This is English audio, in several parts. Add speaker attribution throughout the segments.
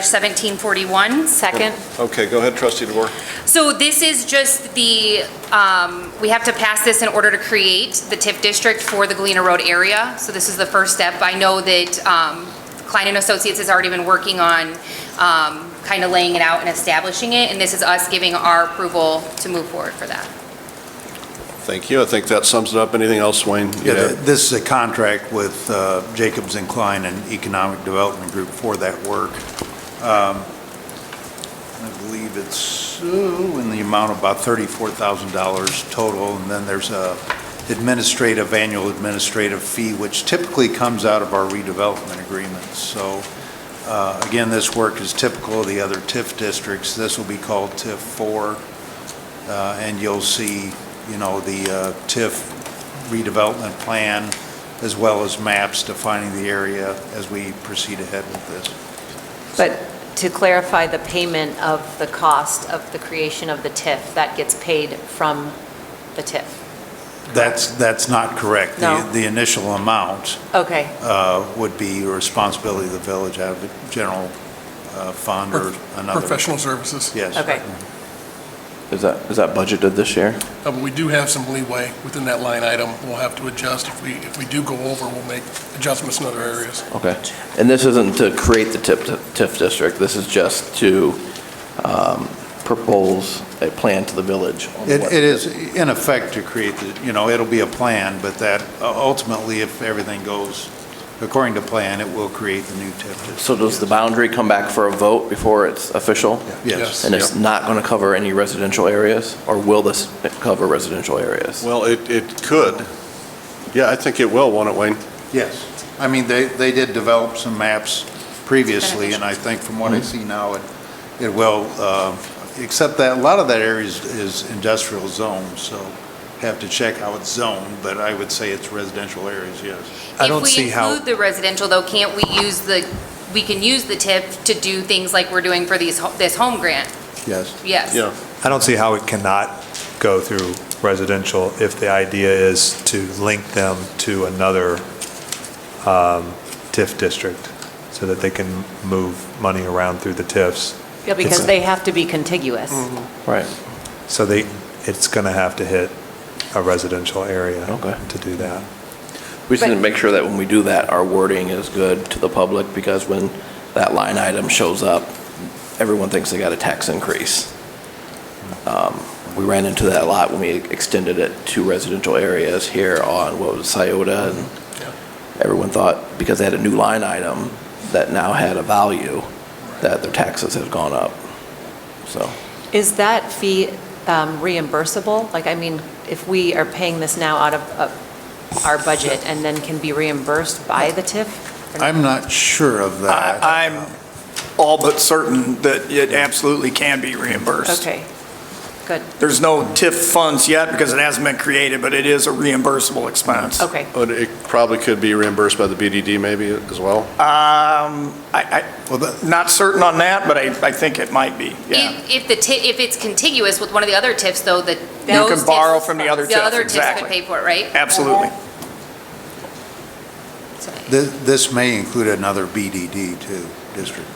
Speaker 1: 2024-1741.
Speaker 2: Second.
Speaker 3: Okay, go ahead, trustee DeVore.
Speaker 1: So this is just the, um, we have to pass this in order to create the TIF district for the Galena Road area. So this is the first step. I know that um, Klein and Associates has already been working on kind of laying it out and establishing it, and this is us giving our approval to move forward for that.
Speaker 3: Thank you. I think that sums it up. Anything else, Wayne? you
Speaker 4: Yeah, th-
Speaker 3: had?
Speaker 4: this is a contract with uh, Jacobs and Klein and Economic Development Group for that work. Um, I believe it's ooh, in the amount of about $34,000 total, and then there's a administrative, annual administrative fee, which typically comes out of our redevelopment agreements. So, uh, again, this work is typical of the other TIF districts. This will be called TIF 4, uh, and you'll see, you know, the uh, TIF redevelopment plan, as well as maps defining the area as we proceed ahead with this.
Speaker 2: But to clarify the payment of the cost of the creation of the TIF, that gets paid from the TIF.
Speaker 4: That's, that's not correct. The-
Speaker 2: No.
Speaker 4: The initial amount
Speaker 2: Okay,
Speaker 4: uh, would be a responsibility of the village out of the general uh, fund or another.
Speaker 5: Professional services,
Speaker 4: Yes.
Speaker 2: okay.
Speaker 6: Is that, is that budgeted this year?
Speaker 5: Uh, but we do have some leeway within that line item. We'll have to adjust. If we, if we do go over, we'll make adjustments in other areas.
Speaker 6: Okay. And this isn't to create the TIF, TIF district, this is just to um, propose a plan to the village? on
Speaker 4: It
Speaker 6: what-
Speaker 4: it is in effect to create, the you know, it'll be a plan, but that uh, ultimately, if everything goes according to plan, it will create the new TIF district.
Speaker 6: So does the boundary come back for a vote before it's official?
Speaker 4: Yes.
Speaker 6: And it's not going to cover any residential areas? Or will this cover residential areas?
Speaker 3: Well, it, it could. Yeah, I think it will, won't it, Wayne?
Speaker 4: Yes. I mean, they, they did develop some maps previously, and I think from what I see now, it, it will, uh, except that, a lot of that area is- is industrial zone, so have to check how it's zoned, but I would say it's residential areas, yes.
Speaker 7: I don't see
Speaker 1: If we
Speaker 7: how,
Speaker 1: include the residential, though, can't we use the, we can use the TIF to do things like we're doing for these, ho- this home grant?
Speaker 4: Yes.
Speaker 1: Yes.
Speaker 3: Yeah.
Speaker 7: I don't see how it cannot go through residential if the idea is to link them to another um, TIF district so that they can move money around through the TIFs.
Speaker 2: Yeah, because they have to be contiguous.
Speaker 6: Right.
Speaker 7: So they, it's going to have to hit a residential area
Speaker 6: Okay.
Speaker 7: to do that.
Speaker 6: We just need to
Speaker 2: But-
Speaker 6: make sure that when we do that, our wording is good to the public, because when that line item shows up, everyone thinks they got a tax increase. Um, We ran into that a lot when we extended it to residential areas here on, what was it, Scioto, and everyone thought, because they had a new line item that now had a value, that their taxes have gone up, so.
Speaker 2: Is that fee um, reimbursable? Like, I mean, if we are paying this now out of uh, our budget and then can be reimbursed by the TIF? or not?
Speaker 4: I'm not sure of that.
Speaker 8: I- I'm all but certain that it absolutely can be reimbursed.
Speaker 2: Okay, good,
Speaker 8: There's no TIF funds yet because it hasn't been created, but it is a reimbursable expense.
Speaker 2: okay.
Speaker 3: But Oh, it probably could be reimbursed by the BDD maybe as well?
Speaker 8: Um, I,
Speaker 4: Well, that-
Speaker 8: I, not certain on that, but I, I think it might be,
Speaker 2: E-
Speaker 8: yeah.
Speaker 1: If, if the TIF, if it's contiguous with one of the other TIFs, though, that
Speaker 8: You
Speaker 1: those
Speaker 8: can
Speaker 1: TIFs-
Speaker 8: borrow from the other TIF,
Speaker 1: The other TIFs could
Speaker 8: exactly.
Speaker 1: pay for it, right?
Speaker 8: Absolutely.
Speaker 1: So-
Speaker 4: This, this may include another BDD too, district.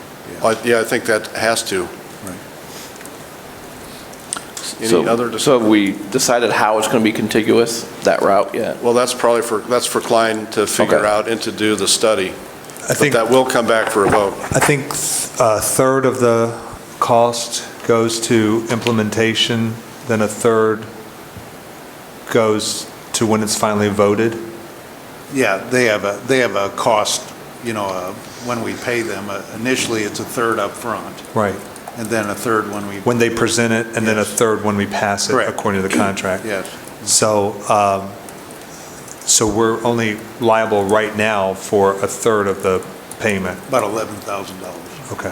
Speaker 3: I- Yeah, I think that has to. Any
Speaker 6: So-
Speaker 3: other
Speaker 6: So
Speaker 3: discussion?
Speaker 6: have we decided how it's going to be contiguous, that route yet?
Speaker 3: Well, that's probably for, that's for Klein to figure
Speaker 6: Okay.
Speaker 3: out and to do the study.
Speaker 7: I
Speaker 3: But
Speaker 7: think,
Speaker 3: that
Speaker 7: I
Speaker 3: will come back for a vote.
Speaker 7: think a third of the cost goes to implementation, then a third goes to when it's finally voted.
Speaker 4: Yeah, they have a, they have a cost, you know, uh, when we pay them, uh, initially it's a third up front,
Speaker 7: Right.
Speaker 4: and then a third when we.
Speaker 7: When they present it, and then a
Speaker 4: Yes.
Speaker 7: third when we pass it,
Speaker 4: Correct.
Speaker 7: according to the contract.
Speaker 4: Yes.
Speaker 7: So, um, so we're only liable right now for a third of the payment.
Speaker 4: About $11,000.
Speaker 7: Okay.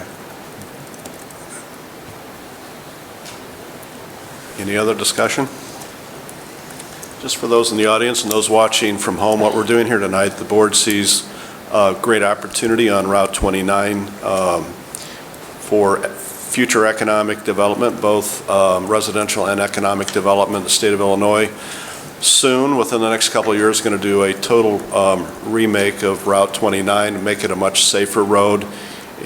Speaker 3: Any other discussion? Just for those in the audience and those watching from home, what we're doing here tonight, the board sees a great opportunity on Route 29 um, for future economic development, both um, residential and economic development in the state of Illinois. Soon, within the next couple of years, going to do a total um, remake of Route 29, make it a much safer road,